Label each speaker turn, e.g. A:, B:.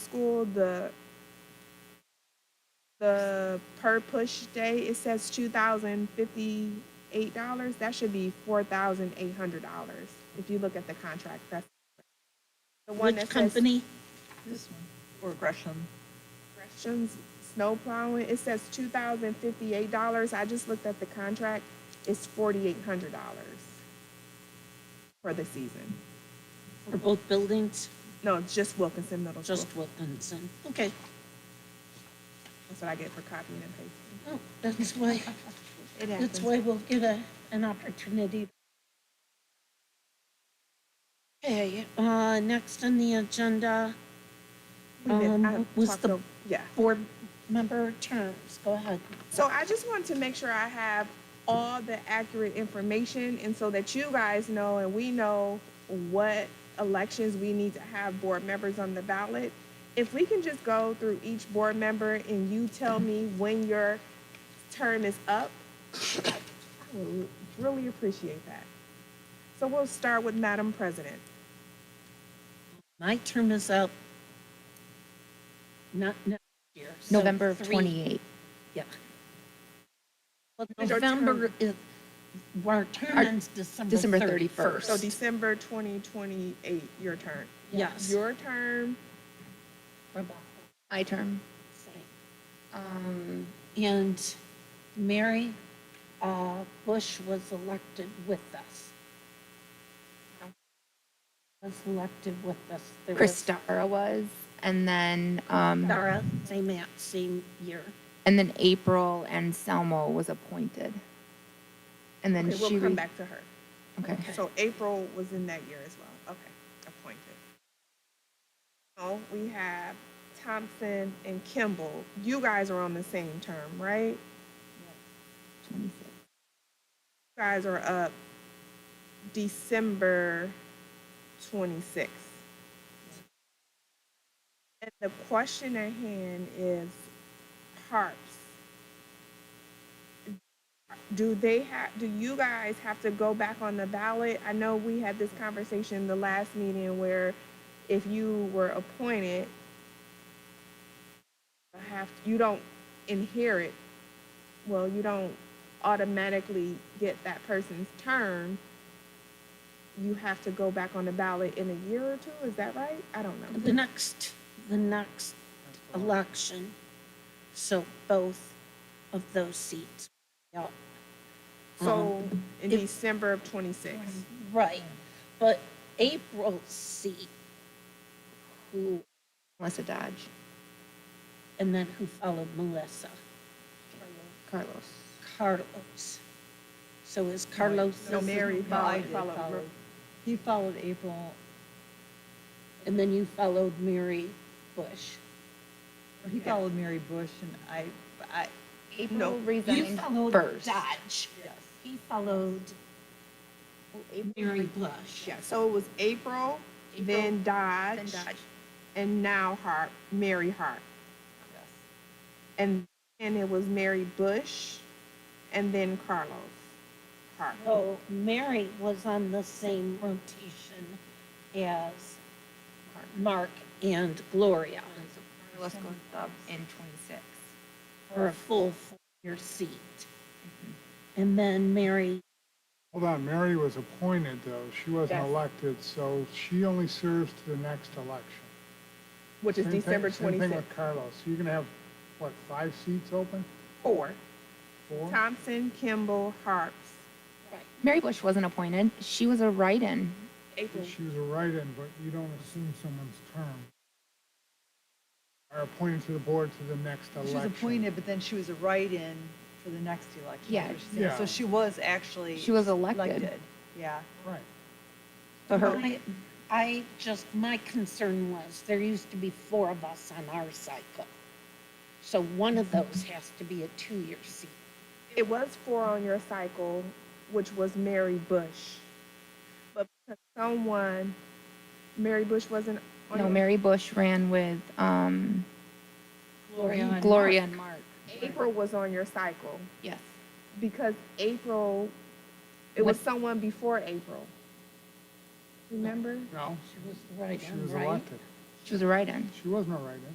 A: school, the, the per push day, it says two thousand fifty-eight dollars, that should be four thousand eight hundred dollars, if you look at the contract, that's. the one
B: Which
A: that says
B: company?
C: This one, or Gresham.
A: corrections, Snow plowing, it says two thousand fifty-eight dollars, I just looked at the contract, it's forty-eight hundred dollars for the season.
B: For both buildings?
A: No, it's just Wilkinson Middle School,
B: Just Wilkinson. Okay.
A: that's what I get for copying and pasting.
B: Oh, That's why,
A: It
B: that's
A: happens.
B: why we'll get a, an opportunity. Okay, uh, next on the agenda,
A: We've been-
B: Um,
A: I
B: was
A: talked
B: the-
A: o- Yeah,
B: board member terms. Go ahead.
A: so I just want to make sure I have all the accurate information and so that you guys know and we know what elections we need to have board members on the ballot. If we can just go through each board member and you tell me when your term is up, I would really appreciate that. So we'll start with Madam President.
B: My term is up. Not next year. so
D: November of
B: three-
D: 28.
B: Yeah. Well,
A: Is our term-
B: November is, our term
D: Our-
B: ends December
D: December
B: 31st.
A: So December twenty twenty-eight, your turn.
B: Yes.
A: Your term,
B: Rebecca.
D: My term.
B: Um, And Mary uh, Bush was elected with us. Was elected with us. There was
D: Christara was, and then, um,
B: Dara, same, a- same year.
D: and then April and Selmo was appointed. And then
A: okay,
D: she,
A: we'll come
D: re-
A: back to her.
D: okay,
B: Okay.
A: So April was in that year as well. Okay, appointed. Oh, we have Thompson and Kimball. You guys are on the same term, right? You
D: 26.
A: guys are up December twenty-sixth. And the question at hand is harps. Do they have, do you guys have to go back on the ballot? I know we had this conversation the last meeting where if you were appointed, you have, you don't inherit, well, you don't automatically get that person's term. You have to go back on the ballot in a year or two, is that right? I don't know.
B: The next, the next election, so both of those seats. Yeah.
A: So in
B: if-
A: December of twenty-six.
B: Right, but April's seat, who
D: Melissa Dodge,
B: And then who followed Melissa?
D: Carlos.
B: Carlos. So is Carlos?
A: No, Mary followed,
C: Mary
A: followed Ro-
C: He followed April,
B: And then you followed Mary Bush.
C: or he
A: Yeah.
C: followed Mary Bush and I, I,
D: April
B: You
D: resigned
B: followed
D: first.
B: Dodge.
C: yes.
B: He followed Mary Bush.
A: Yeah, so it was April, then
D: Then
A: Dodge,
D: Dodge.
A: and now Hart, Mary Hart. And then it was Mary Bush, and then Carlos Hart.
B: So Oh, Mary was on the same rotation as Mark and Gloria
D: Carlos goes up in 26.
B: for a full four-year seat.
A: Mm-hmm.
B: And then Mary
E: Hold on, Mary was appointed though, she wasn't
A: Yes.
E: elected, so she only serves to the next election.
A: Which is
E: Same thing-
A: December
E: Same thing
A: twenty-sixth.
E: with Carlos, so you're gonna have, what, five seats open?
A: Four,
E: Four?
A: Thompson, Kimball, Harps.
D: Mary Bush wasn't appointed. She was a write-in.
A: April,
E: She was a write-in, but you don't assume someone's term. Are appointed to the board to the next
C: She was
E: election.
C: appointed, but then she was a write-in for the next election.
D: Yeah.
C: which is- So
E: Yeah.
C: she was actually.
D: She was elected.
C: Yeah.
E: Right,
D: So her,
B: I, I just, my concern was, there used to be four of us on our cycle. So one of those has to be a two-year seat.
A: it was four on your cycle, which was Mary Bush. But because someone, Mary Bush wasn't on
D: no,
A: your-
D: Mary Bush ran with, um,
B: Gloria and
D: Mm-hmm. Gloria and Mark.
A: April was on your cycle.
D: Yes.
A: because April, it was
D: What-
A: someone before April. Remember?
E: no,
B: She was right
E: she
B: on,
E: was
B: right?
E: elected.
D: She was a write-in.
E: She was not write-in.